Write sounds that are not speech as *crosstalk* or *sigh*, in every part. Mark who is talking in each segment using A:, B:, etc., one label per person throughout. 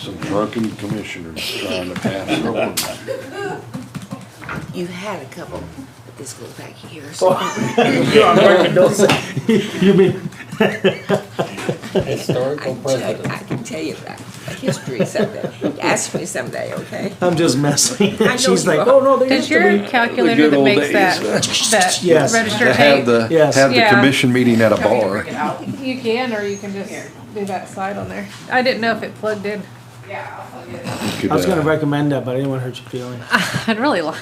A: Some drunken commissioners trying to
B: *laughs*
A: pass an ordinance.
C: You had a couple, but this goes back years. So
D: You mean,
C: I
E: Historical
C: can tell,
E: president.
C: I can tell you about history someday. Ask me someday, okay?
D: I'm just messing. *laughs*
C: know
D: She's
C: you
D: like,
C: are.
D: oh no, there used
B: Is
D: to
B: your
D: be.
B: calculator
A: The good
B: that
A: old
B: makes
A: days, *laughs*
B: that,
A: uh,
B: that
D: Yes.
B: register
A: To have
B: tape?
A: the,
D: Yes.
A: have the
B: Yeah.
A: commission meeting at a bar.
B: You can, or you can just do that slide on there. I didn't know if it plugged in. *laughs*
D: I
A: uh,
D: was gonna recommend that, but I didn't want to hurt your feelings.
B: I'd really like,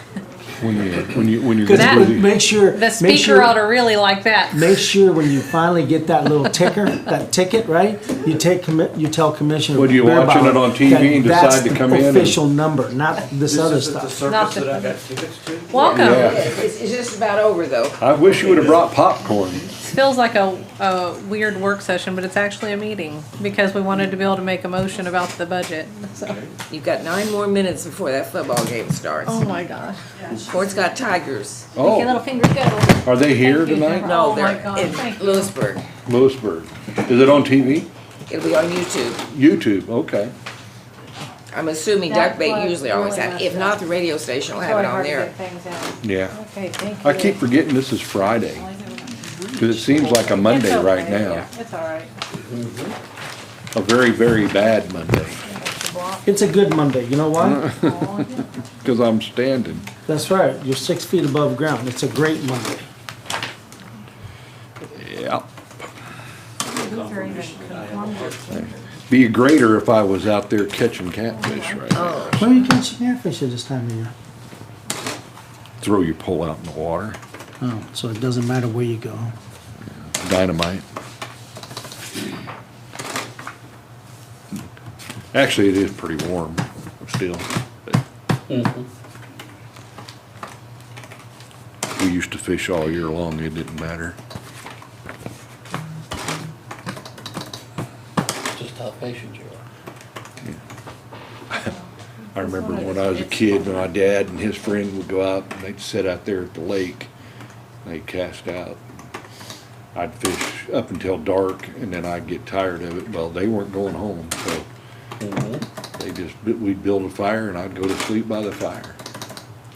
A: When you, when you, when you're.
D: Because
B: That-
A: really-
D: make sure
B: the
D: make
B: speaker
D: sure,
B: ought to really like that.
D: make sure when you finally get that little ticker, that ticket, right? You take commi- you tell Commissioner.
A: What, you're
D: Beerbauer
A: watching it on TV
D: that
A: and
D: that's
A: decide to
D: the
A: come in and-
D: Official number, not this other stuff.
B: Not the- Welcome.
A: Yeah.
C: It's, it's just about over though.
A: I wish you would've brought popcorn.
B: This feels like a, a weird work session, but it's actually a meeting because we wanted to be able to make a motion about the budget. So-
C: You've got nine more minutes before that football game starts.
B: Oh my gosh.
C: Ford's got Tigers.
B: Make your little
A: Oh,
B: finger go.
A: are they here
B: Thank you.
A: tonight?
C: No,
B: Oh my
C: they're
B: God,
C: in
B: thank you.
C: Lewisburg.
A: Lewisburg. Is it on TV?
C: It'll be on YouTube.
A: YouTube, okay.
C: I'm assuming
B: That
C: duck bait
B: was
C: usually always
B: really
C: have. If
B: messed
C: not,
B: up.
C: the radio station will have
B: Sorry,
C: it on
B: hard to
C: there.
B: get things out.
A: Yeah.
B: Okay, thank you.
A: I keep forgetting this is Friday, cause it seems like a Monday
B: It's
A: right
B: okay.
A: now.
B: It's all right.
A: A very, very bad Monday,
D: It's a good Monday. You know
A: *laughs*
D: why?
A: cause I'm standing.
D: That's right. You're six feet above ground. It's a great Monday.
A: Yeah. Be greater if I was out there catching catfish right
B: Oh.
A: now.
D: Why are you catching airfish at this time of year?
A: Throw your pole out in the water,
D: Oh, so it doesn't matter where you go.
A: dynamite. Actually, it is pretty warm still. but- We used to fish all year long, it didn't matter.
E: Just how patient you are.
A: I remember when I was a kid, my dad and his friend would go out and they'd sit out there at the lake. and They'd cast out. I'd fish up until dark and then I'd get tired of it. Well, they weren't going home, so they just, we'd build a fire and I'd go to sleep by the fire.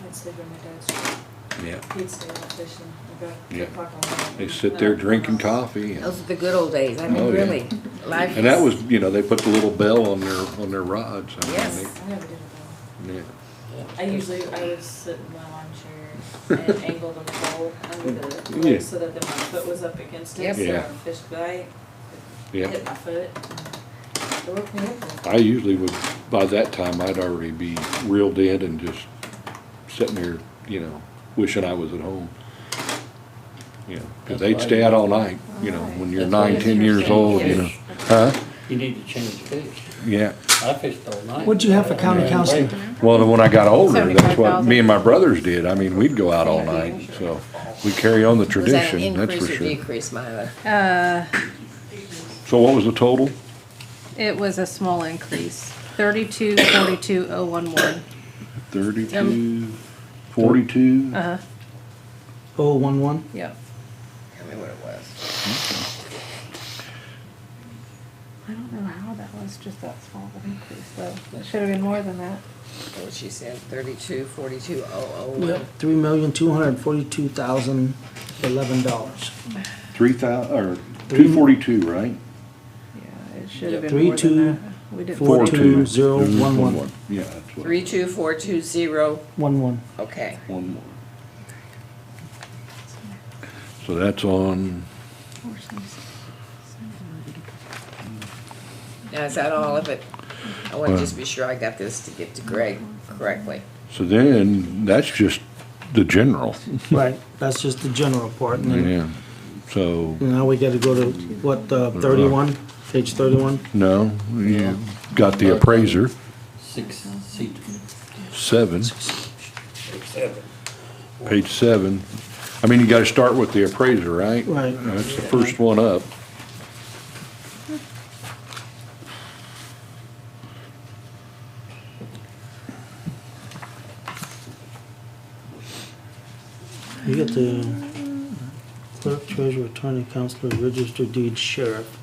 F: I'd sleep in my dad's truck.
A: Yeah.
F: He'd stay out fishing about two
A: Yeah.
F: o'clock in the morning.
A: They sit there drinking coffee and,
C: Those are the good old days. I mean,
A: Oh, yeah.
C: really. Life
A: and that
C: is-
A: was, you know, they put the little bell on their, on their rods. I mean,
C: Yes.
F: I never did it
A: they- yeah.
F: though. I usually, I would sit in my lawn chair and angle the pole under the
A: Yeah.
F: pole so that then my foot was up against it.
C: Yep.
F: So
A: Yeah.
F: when fish bite,
A: Yeah.
F: hit my foot. It woke me up.
A: I usually would, by that time, I'd already be reeled in and just sitting here, you know, wishing I was at home. You know, because they'd stay out all night, you know, when you're
E: That's why
A: nine,
E: it's
A: ten years
E: interesting.
A: old, you know. Huh?
E: You need to change fish.
A: Yeah.
E: I fished all night.
D: What'd you have for county
E: Yeah.
D: council?
A: Well, then when I got older, that's what
B: 75,000.
A: me and my brothers did. I mean, we'd go out all night, so we carry on the
C: Was that an
A: tradition, that's for
C: increase or
A: sure.
C: decrease, Myla?
B: Uh,
A: So what was the total?
B: it was a small increase, thirty-two, forty-two, oh, one, one.
A: Thirty-two,
C: Um,
A: forty-two?
B: Uh-huh,
D: Oh, one one.
B: yeah.
C: Tell me what it was.
B: I don't know how that was just that small of an increase, though. It should have been more than that.
C: What she said, thirty-two, forty-two, oh, oh,
D: Yep,
C: one.
D: three million, two hundred and forty-two thousand, eleven dollars.
A: Three thou, or two forty-two, right?
B: Yeah, it should have
D: Yeah,
B: been
D: three,
B: more
D: two,
B: than that. We didn't.
D: four,
B: vote.
D: two, zero, one, one.
A: Yeah, that's what.
C: Three, two, four, two, zero,
D: One one.
C: okay.
A: One more. So that's on,
C: Now, is that all of it? I wanna
A: Well-
C: just be sure I got this to get to Greg correctly.
A: so then, that's just the general.
D: Right, that's just the general part, and then,
A: Yeah, so,
D: now we gotta go to, what, uh, thirty-one, page thirty-one?
A: no, you got the appraiser,
E: Six seat.
A: seven. Page seven. I mean, you gotta start with the appraiser, right?
D: Right.
A: That's the first one up.
D: You get the clerk, treasurer, attorney, counselor, register deed, sheriff.